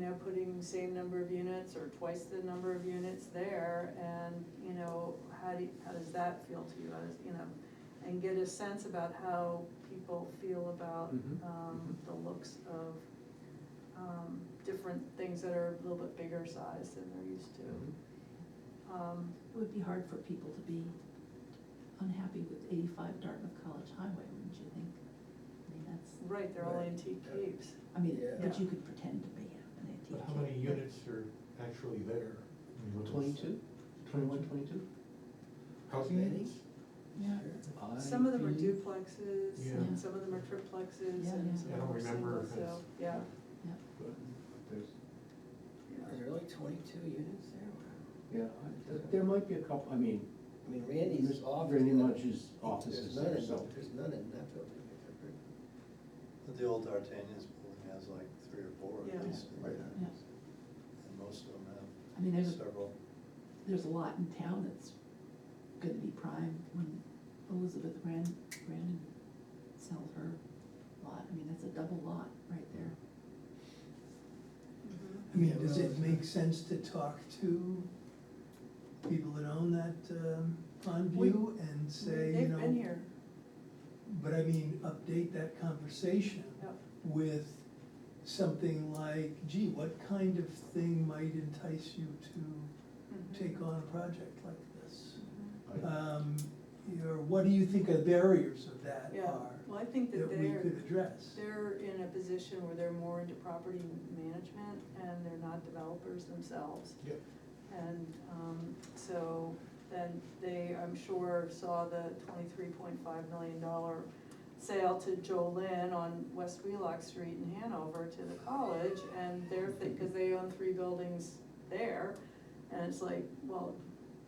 know, putting same number of units or twice the number of units there, and, you know, how do, you- how does that feel to you, as, you know? And get a sense about how people feel about, Mhm, um, the looks of, um, different things that are a little bit bigger size than they're used Mhm. to. Um, It would be hard for people to be unhappy with eighty-five Dartmouth College Highway, wouldn't you think? I mean, that's, right, they're all Right. antique capes, I mean, but Yeah. you could pretend to be an antique. But how many kid. units are actually there? I mean, what is- Twenty-two, twenty-one, twenty-two? Housing Many? units? Yeah. some of them are IP. duplexes, Yeah. and some of them are triplexes, Yeah, yeah. and some I of them don't are remember singles, if so, it's. yeah. Yeah. But there's, yeah. Are there really twenty-two units there? Wow. Yeah, I- there might be a couple, I mean, I mean, Randy's There's office. Randy there- Munch's office there's is none there, in- so- There's none in that building. I've ever- But The old D'Artagnan's building has like three or four Yeah. at least, in Right. there. Yeah. and most of them I mean, have there's, several. there's a lot in town that's gonna be prime when Elizabeth Brand, Brandon sells her lot. I mean, that's a double lot right there. Mhm. I mean, does it make sense to talk to people that own that um, Pondview and say, you They've been know, here, but I mean, update that conversation Yep. with something like, gee, what kind of thing might entice you to Mhm. take on a project like this? Mhm. I- Um, Or what do you think the barriers of that Yeah, are, well, I think that that we could they're, address? they're in a position where they're more into property management and they're not developers themselves. yeah, And, um, so then they, I'm sure, saw the twenty-three point five million dollar sale to Joe Lynn on West Wheelock Street in Hanover to the college, and they're, because they own three buildings there, and it's like, well,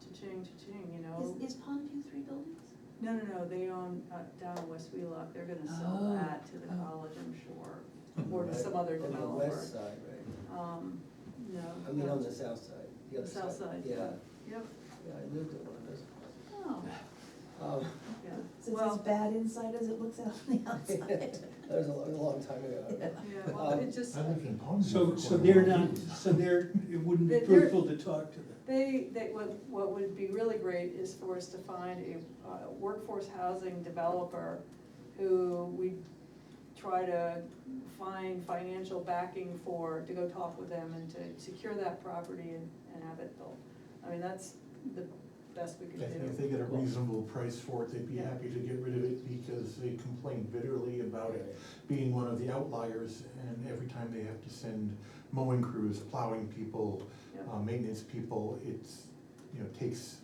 cha-ching, cha-ching, you know? Is, is Pondview three buildings? No, no, no, they own, uh, down in West Wheelock, they're gonna sell Oh, that to the oh. college, I'm sure, or to some Right, other On the developer. west side, right? Um, no. I mean, no. on the south side, the The other side. south side, yeah, yep, Yeah, I lived at one of those. places. oh, Um, yeah, So it's as well, bad inside as it looks out on the outside. That was a, lo- a long time ago. Yeah. yeah, well, it just, Um, I lived in Palm. So, so they're not, so they're, it wouldn't be They're- they're- fruitful to talk to them. they, they, what, what would be really great is for us to find a uh, workforce housing developer who we try to find financial backing for, to go talk with them and to secure that property and, and have it built. I mean, that's the best we could I think if they do. get a reasonable price for it, they'd be Yeah. happy to get rid of it because they complained bitterly about it being one of the outliers. And every time they have to send mowing crews, plowing people, Yeah. uh, maintenance people, it's, you know, takes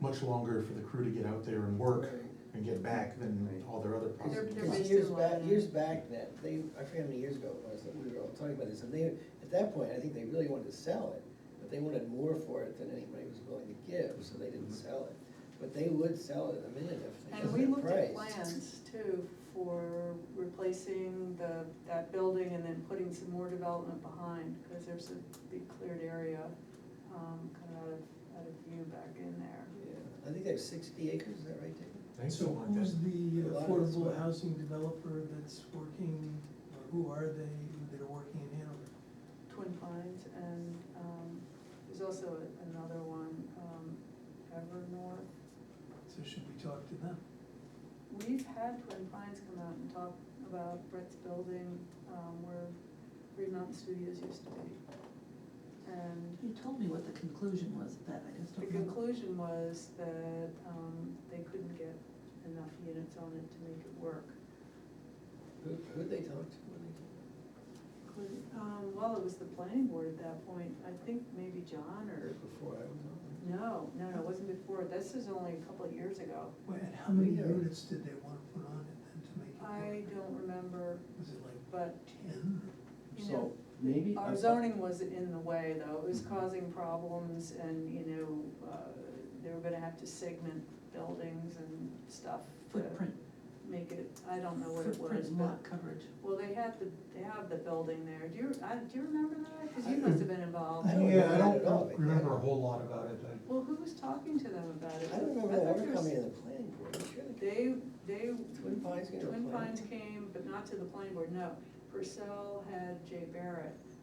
much longer for the crew to get out there and work Right. and get back than Right. all their other They're- problems. they're Because based Years in back, London. years back then, they, I forget how many years ago it was, that we were all talking about this, and they, at that point, I think they really wanted to sell it, but they wanted more for it than anybody was willing to give, so they didn't sell it. But they would sell it in a minute if they And got we that looked at price. plans too for replacing the, that building and then putting some more development behind, because there's a big cleared area, um, kind of out of, out of view back in there. Yeah, I think they have sixty acres, is that right, David? Thanks so So much. who's the A lot of it's affordable what- housing developer that's working, or who are they that are working in Hanover? Twin Pines and, um, there's also a- another one, um, Evernorth. So should we talk to them? We've had Twin Pines come out and talk about Brett's building, um, where Green Mountain Studios used to be. And You told me what the conclusion was of that, I just The don't remember. conclusion was that um, they couldn't get enough units on it to make it work. Who, who'd they talk to when they came Couldn't- um, Well, it was the planning board at that point, I think maybe John out? Or or, before I was on no, no, no, it wasn't before, this is only a couple of years ago. Well, And how many Yeah. units did they wanna put on it then to make I it don't remember, work? Was it like but, ten? you know, So maybe. our a- zoning was in the way though, it was Mm-hmm. causing problems and, you know, uh, they were gonna have to segment buildings and stuff to Footprint, make it, I don't know what it was, footprint but lot coverage. Well, they have the, they have the building there, do you, I, do you remember that? Cause you must have been involved. I don't Yeah, I remember that don't at all. don't remember a whole lot about it. I- Well, who was talking to them about it? I don't remember I that thought ever there was- coming to the planning board, I'm sure they, They, they, Twin Pines got a Twin plan. Pines came, but not to the planning board, no. Purcell had Jay Barrett